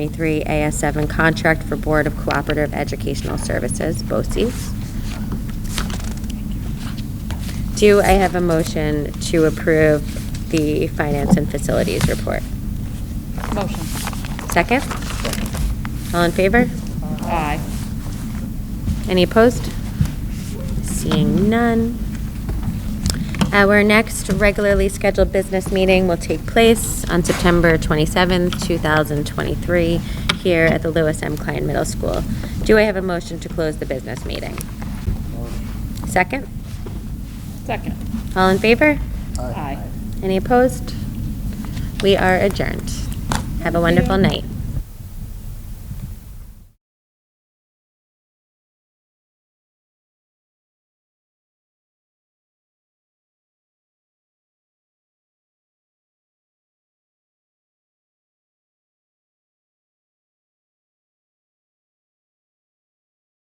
23 AS7 contract for Board of Cooperative Educational Services, BOCES. Do I have a motion to approve the Finance and Facilities Report? Motion. Second? All in favor? Aye. Any opposed? Seeing none. Uh, Our next regularly scheduled business meeting will take place on September 27th, 2023, here at the Lewis M. Klein Middle School. Do I have a motion to close the business meeting? Second? Second. All in favor? Aye. Any opposed? We are adjourned. Have a wonderful night.